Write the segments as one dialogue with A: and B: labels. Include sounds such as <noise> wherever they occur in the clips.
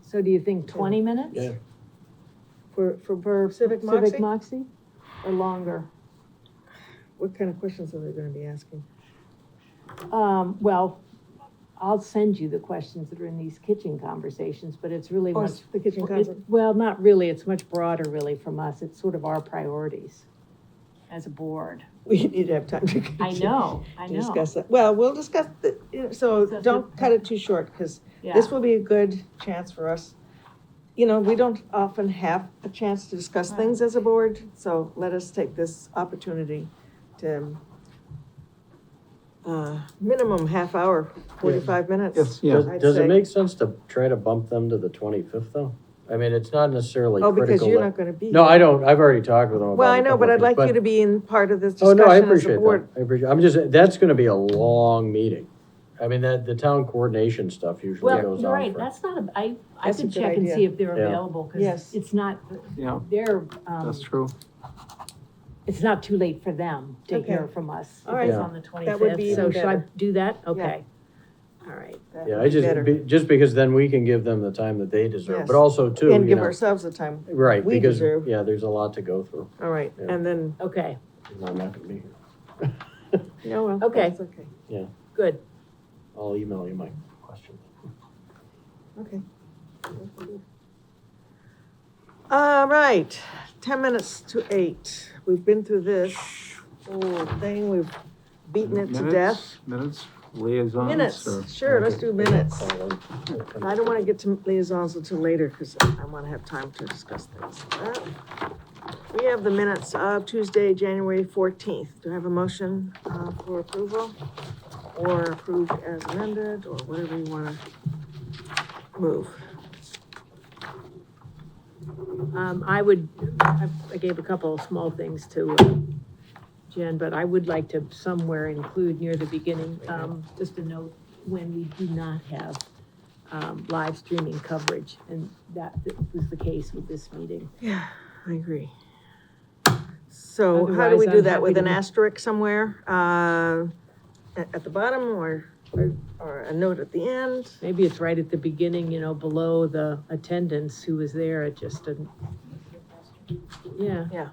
A: So do you think twenty minutes?
B: Yeah.
A: For, for, for
C: Civic
A: Civic
C: Moxie?
A: Moxie, or longer?
C: What kind of questions are they gonna be asking?
A: Um, well, I'll send you the questions that are in these kitchen conversations, but it's really
C: Or
A: much.
C: Oh, the kitchen
A: Well, it-
C: conference?
A: Well, not really, it's much broader really from us, it's sort of our priorities as a board.
C: We need to have time <laughs> to.
A: I know, I
C: To
A: know,
C: discuss that. Well, we'll discuss, the- you know, so
A: So-
C: don't cut it too short, because
A: yeah.
C: this will be a good chance for us. You know, we don't often have a chance to discuss
A: Right.
C: things as a board, so let us take this opportunity to uh, minimum half hour, forty-five minutes.
D: Yes, yeah.
B: Does,
C: I'd
B: does
C: say-
B: it make sense to try to bump them to the twenty-fifth though? I mean, it's not necessarily
C: Oh,
B: critical.
C: because you're
B: that-
C: not gonna be.
B: No,
C: here.
B: I don't, I've already talked with them about.
C: Well,
B: a
C: I know,
B: couple
C: but
B: of
C: I'd like
B: things,
C: you to be in part of this
B: Oh,
C: discussion
B: no, I
C: as a
B: appreciate that,
C: board.
B: I appreciate, I'm just, that's gonna be a long meeting. I mean, that, the town coordination stuff usually
A: Well,
B: goes
A: you're
B: on
A: right,
B: for.
A: that's not, a- I, I
C: That's a
A: could
C: good
A: check and
C: idea.
A: see if they're
B: Yeah.
A: available, because
C: Yes.
A: it's not,
D: Yeah,
A: they're, um,
D: that's true.
A: it's not too late for them to
C: Okay.
A: hear from us. if
C: All right.
A: It's on the
C: That would be
A: twenty-fifth, so should I
C: better.
A: do that? Okay. All right,
C: That
B: Yeah,
C: would
B: I
C: be
B: just,
C: better.
B: be- just because then we can give them the time that they deserve, but
C: Yes.
B: also too,
C: And
B: you
C: give
B: know,
C: ourselves the time,
B: right,
C: we
B: because,
C: deserve.
B: yeah, there's a lot to go through,
C: all right,
B: Yeah.
C: and then,
A: okay,
B: and I'm not gonna be here.
C: no, well,
A: Okay.
C: that's okay,
A: good.
B: I'll email you my question.
C: okay. All right, ten minutes to eight, we've been through this whole thing, we've beaten it to death.
D: Minutes- Minutes, liaisons. or-
C: Minutes, sure, let's do minutes. I don't wanna get to liaisons until later, because I wanna have time to discuss things. Uh, We have the minutes of Tuesday, January fourteenth. Do I have a motion, uh, for approval? Or approved as amended, or whatever you wanna move?
A: Um, I would, I I gave a couple of small things to uh, Jen, but I would like to somewhere include near the beginning, um, just a note, when we do not have, um, live streaming coverage, and that was the case with this meeting.
C: Yeah, I agree. So how do
A: Otherwise,
C: we do
A: I'm
C: that, with
A: happy
C: an
A: to-
C: asterisk somewhere, uh, at, at the bottom, or, or- or a note at the end?
A: Maybe it's right at the beginning, you know, below the attendance who was there, it just didn't. Yeah.
C: Yeah.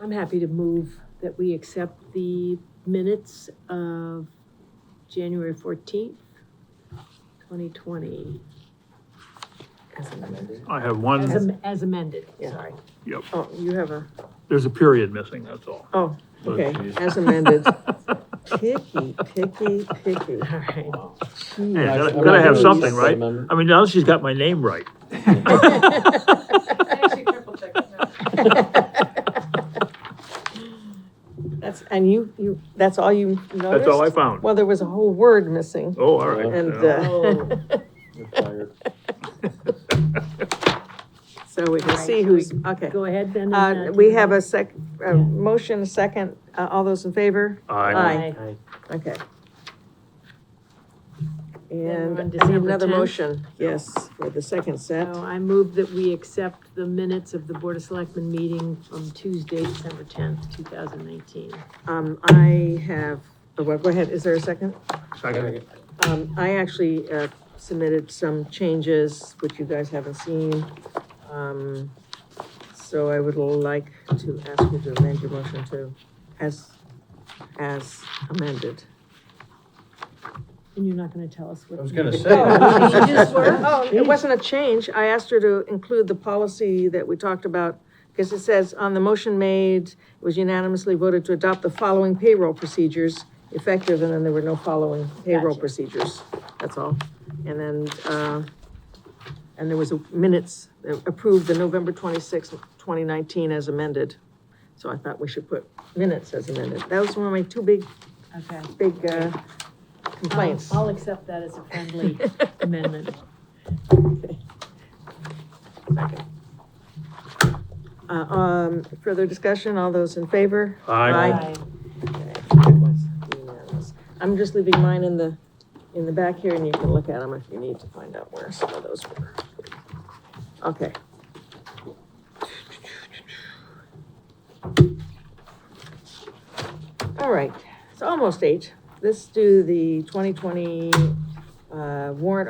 A: I'm happy to move that we accept the minutes of January fourteenth, twenty twenty,
C: As an amended.
E: I
A: as
E: have one,
A: am- as amended,
C: Yeah.
A: sorry.
C: Oh, you have a,
E: there's a period missing, that's all.
C: oh,
E: But-
C: okay, as amended. Picky, picky,
A: <laughs>
C: picky.
A: All right.
E: <laughs> Yeah,
C: Jeez.
E: gotta, gotta have something, right? I mean, now she's got my name
C: <laughs>
E: right.
C: That's, and you, you, that's all you noticed?
E: That's all I found.
C: Well, there was a whole word missing.
E: Oh, all right.
C: And, uh,
E: Yeah.
A: Oh.
C: So we can see
A: Right.
C: who's, okay.
A: <laughs> Go ahead then. and,
C: Uh, we have
A: Jen.
C: a sec,
A: Yeah.
C: a motion, a second, uh, all those in favor?
E: Aye.
C: Okay.
A: we're on
C: And I need
A: December
C: another
A: 10th.
C: motion, yes, for the second set.
A: So I move that we accept the minutes of the Board of Selectmen meeting from Tuesday, December tenth, two thousand nineteen.
C: Um, I have, oh, well, go ahead, is there a second?
E: Second.
C: Um, I actually, uh, submitted some changes, which you guys haven't seen. Um, so I would like to ask you to amend your motion to, as, as amended.
A: And you're not gonna tell us what.
B: I was gonna
A: the
C: <laughs>
B: say. <laughs>
A: changes were?
C: Oh, it wasn't a change, I asked her to include the policy that we talked about, because it says, on the motion made, it was unanimously voted to adopt the following payroll procedures, effective, and then there were no following payroll
A: Gotcha.
C: procedures, that's all. And then, uh, and there was a minutes, that approved the November twenty-sixth, twenty nineteen as amended. So I thought we should put minutes as amended, that was one of my two big,
A: Okay.
C: big, uh,
A: I'll-
C: complaints.
A: I'll accept that as a <laughs> friendly amendment.
C: Uh, um, further discussion, all those in favor?
E: Aye.
C: Aye. I'm just leaving mine in the, in the back here, and you can look at them if you need to find out where some of those were. Okay. All right, it's almost eight. Let's do the twenty twenty, uh, warrant